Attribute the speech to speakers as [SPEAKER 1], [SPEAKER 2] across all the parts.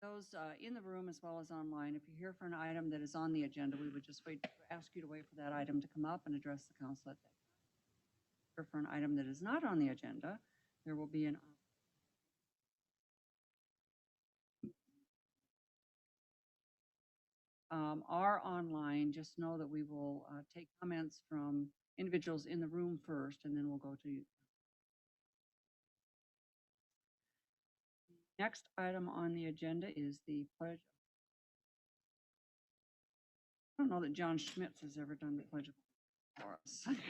[SPEAKER 1] Those uh, in the room as well as online, if you're here for an item that is on the agenda, we would just wait, ask you to wait for that item to come up and address the council at that. time. Here for an item that is not on the agenda, there will be an um, are online, just know that we will uh, take comments from individuals in the room first, and then we'll go to you. Next item on the agenda is the pledge. I don't know that John Schmitz has ever done the pledge for us.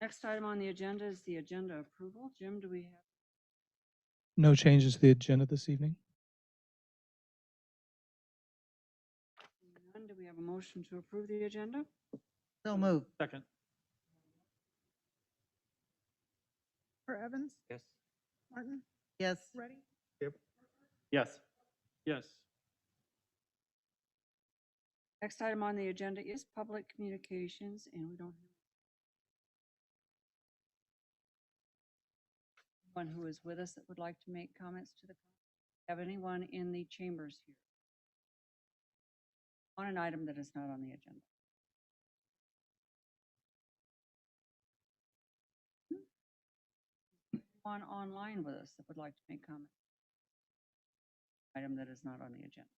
[SPEAKER 1] Next item on the agenda is the agenda approval. Jim, do we have?
[SPEAKER 2] No changes to the agenda this evening?
[SPEAKER 1] None. Do we have a motion to approve the agenda?
[SPEAKER 3] So moved.
[SPEAKER 4] Second.
[SPEAKER 5] For Evans,
[SPEAKER 4] Yes.
[SPEAKER 5] Martin,
[SPEAKER 3] Yes,
[SPEAKER 5] Ready,
[SPEAKER 4] Yes. Yes.
[SPEAKER 1] Next item on the agenda is public communications, and we don't have one who is with us that would like to make comments to the, have anyone in the chambers here on an item that is not on the agenda? One Hmm. online with us that would like to make comment? Item that is not on the agenda.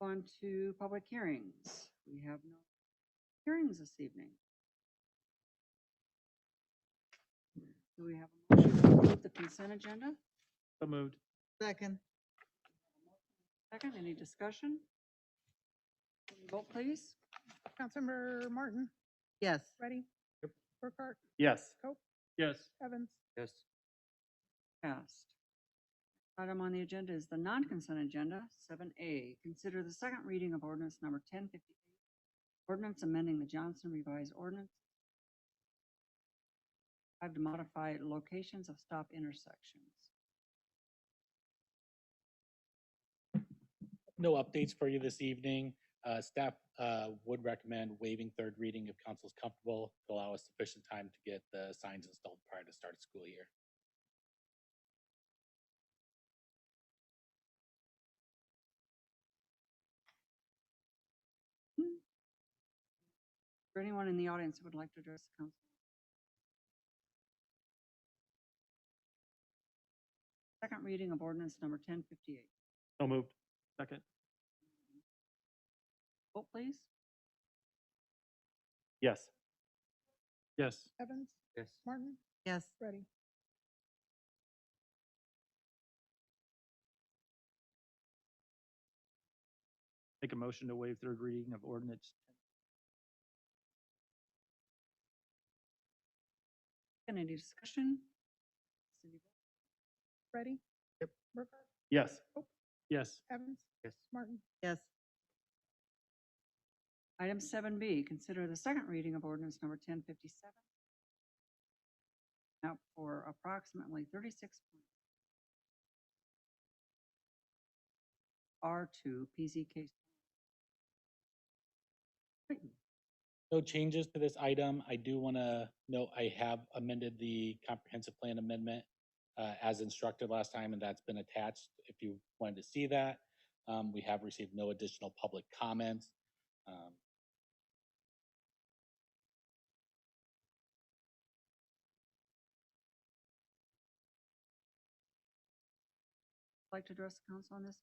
[SPEAKER 1] On to public hearings. We have no hearings this evening. Do we have a motion to approve the consent agenda?
[SPEAKER 4] So moved.
[SPEAKER 3] second,
[SPEAKER 1] Second, any discussion? Can we Vote, please.
[SPEAKER 5] Councilmember Martin,
[SPEAKER 3] yes,
[SPEAKER 5] Ready.
[SPEAKER 4] Yep.
[SPEAKER 5] Burkhart,
[SPEAKER 4] Yes.
[SPEAKER 5] Cope.
[SPEAKER 4] Yes.
[SPEAKER 5] Evans,
[SPEAKER 4] Yes.
[SPEAKER 1] Passed. Item on the agenda is the non-consent agenda, seven A. Consider the second reading of ordinance number ten fifty-eight. Ordinance amending the Johnson revised ordinance. Five to modify locations of stop intersections.
[SPEAKER 6] No updates for you this evening. Uh, Staff uh, would recommend waiving third reading if council's comfortable to allow us sufficient time to get the signs installed prior to start of school year.
[SPEAKER 1] For anyone in the audience who would like to address the council? Second reading of ordinance number ten fifty-eight.
[SPEAKER 4] So moved. Second.
[SPEAKER 1] Vote please.
[SPEAKER 4] Yes. Yes.
[SPEAKER 5] Evans,
[SPEAKER 4] Yes.
[SPEAKER 5] Martin,
[SPEAKER 3] yes,
[SPEAKER 5] Ready,
[SPEAKER 4] Make a motion to waive third reading of ordinance.
[SPEAKER 1] And any discussion? Cindy,
[SPEAKER 5] Ready.
[SPEAKER 4] Yep.
[SPEAKER 5] Burkhart,
[SPEAKER 4] Yes.
[SPEAKER 5] Oh.
[SPEAKER 4] Yes.
[SPEAKER 5] Evans,
[SPEAKER 4] Yes.
[SPEAKER 5] Martin,
[SPEAKER 3] yes,
[SPEAKER 1] Item seven B, consider the second reading of ordinance number ten fifty-seven. Out for approximately thirty-six. R two PZK.
[SPEAKER 6] No changes to this item. I do want to note I have amended the comprehensive plan amendment uh, as instructed last time, and that's been attached. If you wanted to see that, Um, we have received no additional public comments. Um,
[SPEAKER 1] Like to address the council on this?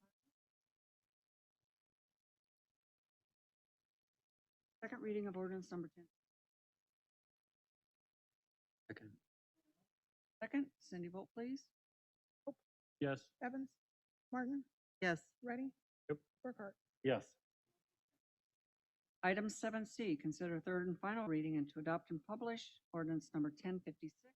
[SPEAKER 1] Second reading of ordinance number ten.
[SPEAKER 4] Second.
[SPEAKER 1] Second, Cindy, vote please.
[SPEAKER 4] Yes.
[SPEAKER 5] Evans, Martin,
[SPEAKER 3] yes,
[SPEAKER 5] Ready.
[SPEAKER 4] Yep.
[SPEAKER 5] Burkhart,
[SPEAKER 4] Yes.
[SPEAKER 1] Item seven C, consider third and final reading and to adopt and publish ordinance number ten fifty-six,